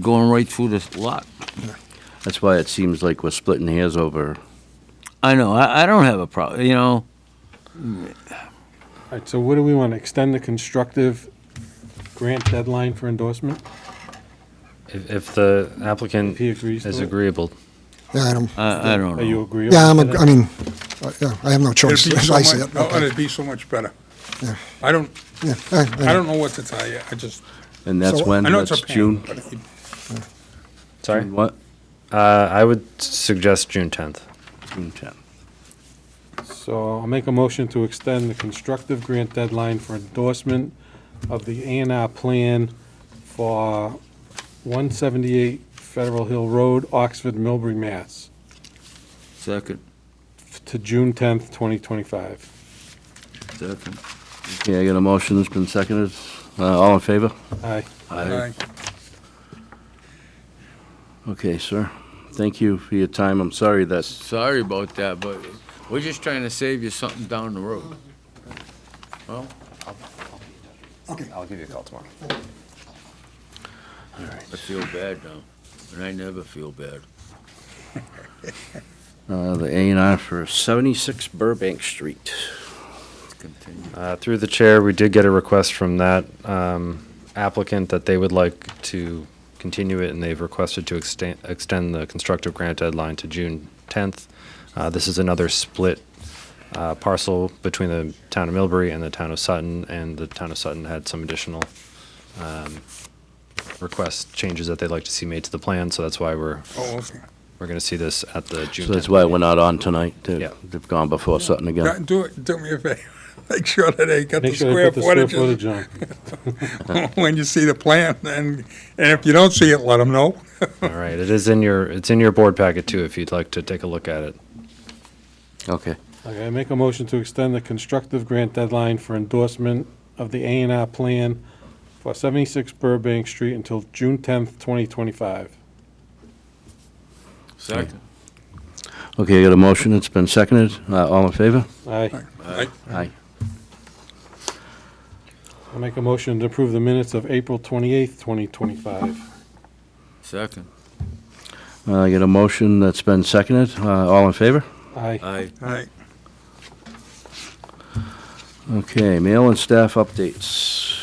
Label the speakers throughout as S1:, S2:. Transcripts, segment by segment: S1: going right through this lot.
S2: That's why it seems like we're splitting hairs over.
S1: I know, I, I don't have a problem, you know,
S3: All right, so what do we want, to extend the constructive grant deadline for endorsement?
S4: If, if the applicant
S3: he agrees
S4: is
S3: to it.
S4: agreeable,
S5: Yeah, I don't,
S1: I, I don't
S3: Are you
S1: know.
S3: agreeable?
S5: yeah, I'm,
S3: with
S5: a- I mean, uh, yeah, I have no choice,
S6: It'd be
S5: as
S6: so
S5: I see
S6: much-
S5: it.
S6: no, And
S5: Okay.
S6: it'd be so much better.
S5: Yeah.
S6: I don't,
S5: Yeah, all right, all
S6: I
S5: right.
S6: don't know what to tell you, I just,
S2: And that's
S5: So-
S2: when?
S6: I know it's
S2: That's
S6: a pain.
S2: June?
S6: but it-
S4: sorry,
S2: June What?
S4: uh, I would suggest June 10th.
S2: June 10th.
S3: that? So I'll make a motion to extend the constructive grant deadline for endorsement of the A and R plan for one seventy-eight Federal Hill Road, Oxford, Milbury, Mass,
S1: Second,
S3: to June tenth, twenty twenty-five.
S1: second.
S2: Okay, I got a motion that's been seconded. Uh, all in favor?
S3: Aye.
S6: I-
S2: Okay, sir. Thank you for your time. I'm sorry that's,
S1: Sorry about that, but we're just trying to save you something down the road. Well,
S4: I'll give you a call tomorrow.
S1: I feel bad now, and I never feel bad.
S2: uh, the A and R for 76 Burbank Street.
S1: Continue.
S4: Uh, Through the chair, we did get a request from that um, applicant that they would like to continue it, and they've requested to extend, extend the constructive grant deadline to June 10th. Uh, This is another split uh, parcel between the town of Millbury and the town of Sutton, and the town of Sutton had some additional um, request changes that they'd like to see made to the plan, so that's why we're,
S6: Oh, okay.
S4: we're going to see this at the June 10th.
S2: So that's why we're not on tonight.
S4: Yeah.
S2: They've they've gone before Sutton
S6: Now,
S2: again.
S6: Do it, do me a favor, make sure that they got the
S3: Make sure they
S6: square
S3: put the square
S6: footage
S3: footage on.
S6: when you see the plan, and, and if you don't see it, let them know.
S4: All right, it is in your, it's in your board packet too, if you'd like to take a look at it.
S2: Okay.
S3: Okay, I make a motion to extend the constructive grant deadline for endorsement of the A and R plan for 76 Burbank Street until June 10th, 2025.
S1: Second.
S2: Okay, I got a motion that's been seconded. Uh, all in favor?
S3: Aye.
S6: I-
S2: Aye.
S3: I make a motion to approve the minutes of April 28th, 2025.
S1: Second.
S2: Uh, I got a motion that's been seconded. Uh, all in favor?
S3: Aye.
S1: Aye.
S6: I-
S2: Okay, mail and staff updates.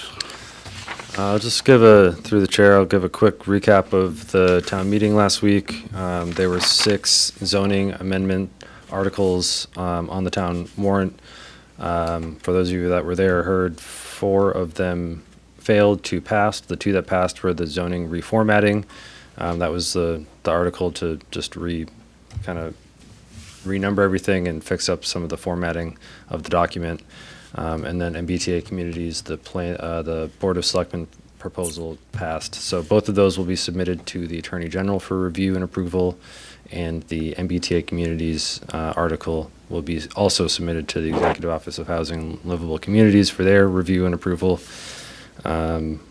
S4: Uh, I'll just give a, through the chair, I'll give a quick recap of the town meeting last week. Um, There were six zoning amendment articles um, on the town warrant. Um, For those of you that were there, heard four of them failed to pass. The two that passed were the zoning reformatting. Um, That was the, the article to just re, kind of renumber everything and fix up some of the formatting of the document. Um, and then MBTA communities, the plan, uh, the Board of Selectmen proposal passed. So both of those will be submitted to the Attorney General for review and approval. And the MBTA communities, uh, article will be also submitted to the Executive Office of Housing and Livable Communities for their review and approval. Um,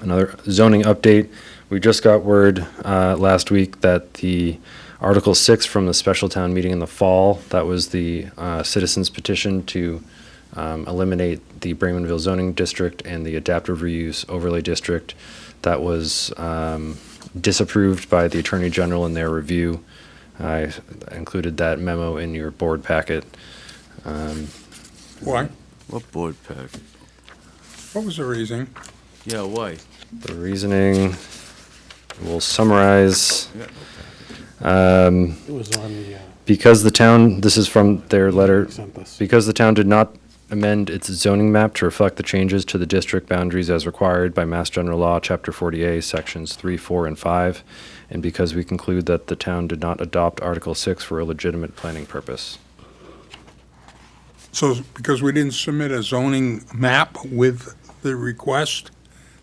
S4: another zoning update. We just got word, uh, last week that the Article six from the special town meeting in the fall, that was the, uh, citizens petition to, um, eliminate the Bremenville zoning district and the adaptive reuse overlay district. That was um, disapproved by the Attorney General in their review. I included that memo in your board packet.
S6: Why?
S1: What board pack?
S6: What was the reason?
S1: Yeah, why?
S4: The reasoning will summarize.
S1: Yeah,
S3: It was on the, uh,
S4: Because the town, this is from their letter,
S3: sent us.
S4: Because the town did not amend its zoning map to reflect the changes to the district boundaries as required by Mass General Law, Chapter 40A, Sections 3, 4, and 5, and because we conclude that the town did not adopt Article 6 for a legitimate planning purpose.
S6: So, because we didn't submit a zoning map with the request,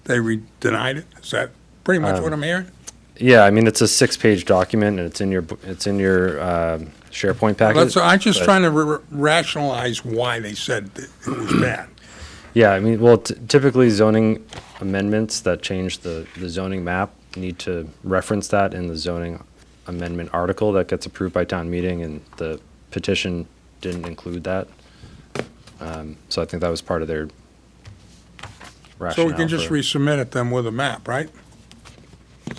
S6: they re- denied it? Is that pretty
S3: Um,
S6: much what I'm hearing?
S4: Yeah, I mean, it's a six-page document, and it's in your, bu- it's in your um, SharePoint packet.
S6: That's, I'm just
S4: but-
S6: trying to ra- rationalize why they said that it was bad.
S4: Yeah, I mean, well, t- typically zoning amendments that change the, the zoning map need to reference that in the zoning amendment article that gets approved by town meeting, and the petition didn't include that. Um, So I think that was part of their
S6: So
S4: rationale.
S6: we can just
S4: for-
S6: resubmit it then with a map, right?